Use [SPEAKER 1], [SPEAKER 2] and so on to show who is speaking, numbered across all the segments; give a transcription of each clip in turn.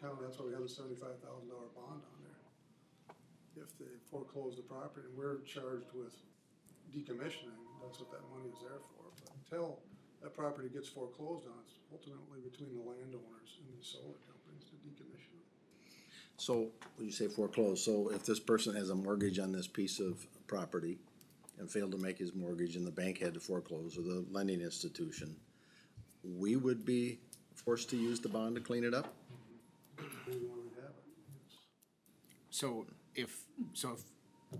[SPEAKER 1] town, that's why we have the seventy-five thousand dollar bond on there. If they foreclose the property and we're charged with decommissioning, that's what that money is there for. But Until that property gets foreclosed on, it's ultimately between the landowners and the solar companies to decommission it.
[SPEAKER 2] So, when you say foreclosed, so if this person has a mortgage on this piece of property and failed to make his mortgage and the bank had to foreclose or the lending institution, we would be forced to use the bond to clean it up?
[SPEAKER 1] We want to have it. yes.
[SPEAKER 3] So if, so if,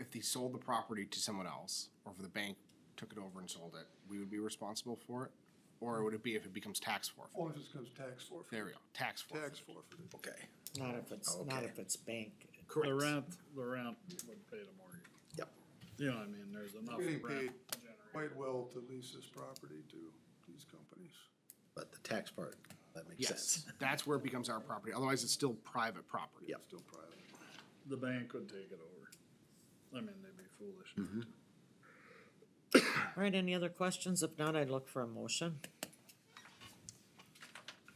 [SPEAKER 3] if they sold the property to someone else, or if the bank took it over and sold it, we would be responsible for it? Or would it be if it becomes tax forfeit?
[SPEAKER 1] Or if it comes tax forfeit,
[SPEAKER 3] There we go, tax
[SPEAKER 1] tax
[SPEAKER 3] forfeit.
[SPEAKER 1] forfeited.
[SPEAKER 2] Okay.
[SPEAKER 4] Not if it's, not
[SPEAKER 2] Okay.
[SPEAKER 4] if it's bank.
[SPEAKER 3] Correct.
[SPEAKER 5] The rent, the rent would pay the mortgage.
[SPEAKER 2] Yep.
[SPEAKER 5] You know, what I mean, there's enough
[SPEAKER 1] Getting
[SPEAKER 5] rent
[SPEAKER 1] paid
[SPEAKER 5] generated.
[SPEAKER 1] Quite well to lease this property to these companies.
[SPEAKER 2] But the tax part, that makes sense.
[SPEAKER 3] Yes, that's where it becomes our property, otherwise it's still private property.
[SPEAKER 2] Yep.
[SPEAKER 1] Still private.
[SPEAKER 5] The bank would take it over. I mean, they'd be foolish. not to.
[SPEAKER 4] All right, any other questions? If not, I'd look for a motion.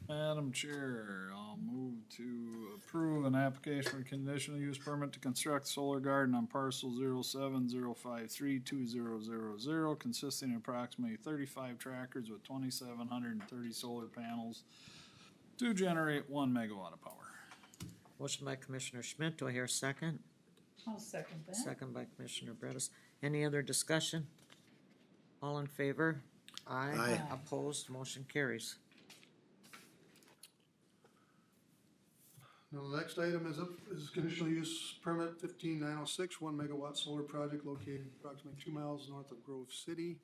[SPEAKER 5] Madam Chair, I'll move to approve an application for conditional use permit to construct solar garden on parcel zero seven zero five three two zero zero zero, consisting of approximately thirty-five trackers with twenty-seven hundred and thirty solar panels to generate one megawatt of power.
[SPEAKER 4] Motion by Commissioner Schmidt, do I hear a second?
[SPEAKER 6] I'll second that.
[SPEAKER 4] Second by Commissioner Bredesen. Any other discussion? All in favor? Aye.
[SPEAKER 2] Aye.
[SPEAKER 4] Opposed, motion carries.
[SPEAKER 1] Now, the next item is up, is conditional use permit fifteen nine oh six, one megawatt solar project located approximately two miles north of Grove City.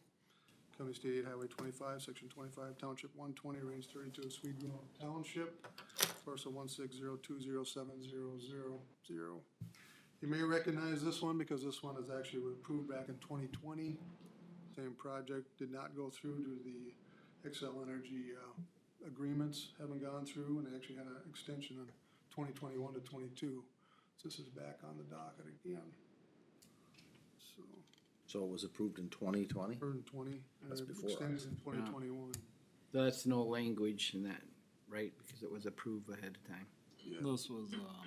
[SPEAKER 1] County State Aid Highway twenty-five, section twenty-five, township one twenty, range thirty-two, Sweden Township, parcel one six zero two zero seven zero zero zero. You may recognize this one because this one is actually approved back in twenty twenty. Same project, did not go through due to the Excel Energy, uh, agreements haven't gone through and they actually had an extension on twenty twenty-one to twenty-two. So this is back on the docket again. So,
[SPEAKER 2] So it was approved in twenty twenty?
[SPEAKER 1] or in twenty, and
[SPEAKER 2] That's before
[SPEAKER 1] extended
[SPEAKER 2] us.
[SPEAKER 1] in twenty twenty-one.
[SPEAKER 7] That's no language in that, right? Because it was approved ahead of time.
[SPEAKER 5] This was, um,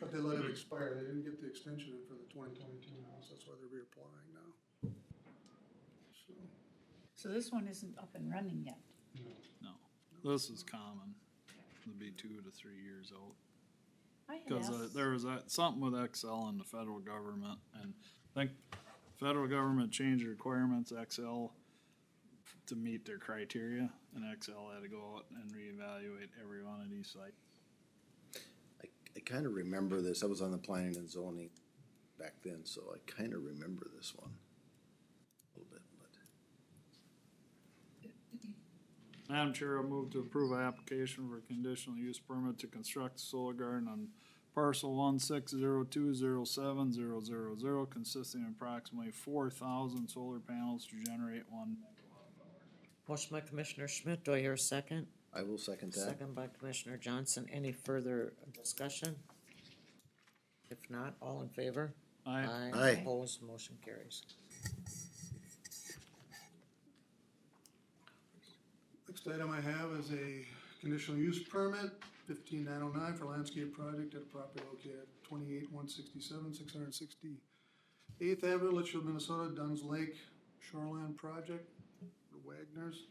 [SPEAKER 1] But they let it expire, they didn't get the extension in for the twenty twenty-two now, so that's why they're reapplying now. So,
[SPEAKER 6] So this one isn't up and running yet.
[SPEAKER 5] No, this is common. It'd be two to three years old.
[SPEAKER 6] I had
[SPEAKER 5] Cause uh,
[SPEAKER 6] asked,
[SPEAKER 5] there was that, something with XL and the federal government and I think federal government changed the requirements XL to meet their criteria and XL had to go out and reevaluate every one of these sites.
[SPEAKER 2] I, I kinda remember this, I was on the planning and zoning back then, so I kinda remember this one. A little bit, but.
[SPEAKER 5] Madam Chair, I move to approve an application for conditional use permit to construct a solar garden on parcel one six zero two zero seven zero zero zero consisting of approximately four thousand solar panels to generate one
[SPEAKER 4] Motion by Commissioner Schmidt, do I hear a second?
[SPEAKER 2] I will second that.
[SPEAKER 4] Second by Commissioner Johnson. Any further discussion? If not, all in favor?
[SPEAKER 5] I,
[SPEAKER 2] Aye.
[SPEAKER 4] Opposed, motion carries.
[SPEAKER 1] Next item I have is a conditional use permit, fifteen nine oh nine for landscape project at a property located at twenty-eight one sixty-seven, six hundred sixty Eighth Avenue, Litchfield, Minnesota, Dunn's Lake Shoreland Project, the Wagner's.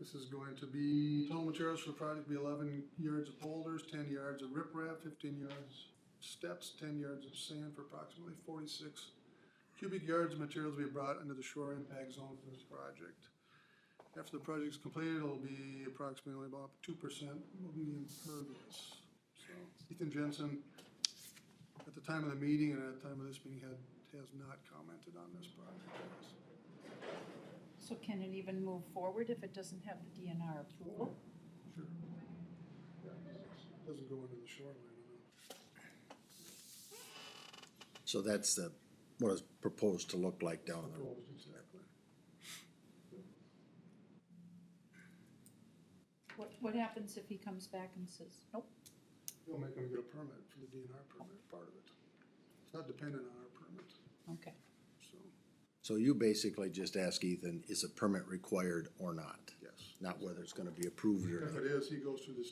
[SPEAKER 1] This is going to be, total materials for the project will be eleven yards of boulders, ten yards of riprap, fifteen yards steps, ten yards of sand for approximately forty-six cubic yards of materials will be brought into the shore impact zone for this project. After the project's completed, it'll be approximately about two percent will be impervious. So Ethan Jensen, at the time of the meeting and at the time of this meeting, had, has not commented on this project.
[SPEAKER 6] so can it even move forward if it doesn't have the DNR approval?
[SPEAKER 1] Sure. Yeah, Doesn't go into the shoreline, I know.
[SPEAKER 2] So that's the, what it's proposed to look like down the road.
[SPEAKER 1] Proposed, exactly.
[SPEAKER 6] What, what happens if he comes back and says, nope,
[SPEAKER 1] We'll make them get a permit for the DNR permit, part of it. It's not dependent on our permit,
[SPEAKER 6] okay,
[SPEAKER 1] so,
[SPEAKER 2] So you basically just ask Ethan, is a permit required or not?
[SPEAKER 1] yes.
[SPEAKER 2] Not whether it's gonna be approved or
[SPEAKER 1] If
[SPEAKER 2] not.
[SPEAKER 1] it is, he goes through this